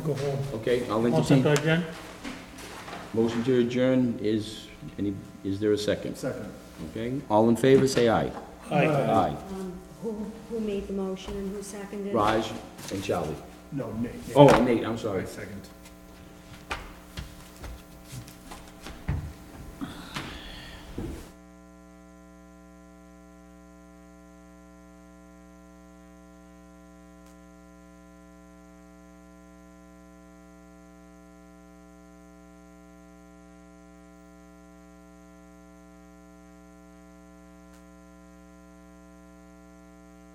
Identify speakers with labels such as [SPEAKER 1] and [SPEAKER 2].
[SPEAKER 1] Go home.
[SPEAKER 2] Okay, I'll
[SPEAKER 1] I'll
[SPEAKER 2] entertain.
[SPEAKER 1] second again.
[SPEAKER 2] Motion to adjourn is, any, is there a second?
[SPEAKER 3] Second.
[SPEAKER 2] Okay, all in favor, say aye.
[SPEAKER 1] Aye.
[SPEAKER 2] Aye.
[SPEAKER 4] Um, Who, who made the motion and who seconded it?
[SPEAKER 2] Raj and Charlie.
[SPEAKER 3] No, Nate. Nate.
[SPEAKER 2] Oh, Nate, I'm sorry.
[SPEAKER 3] Second.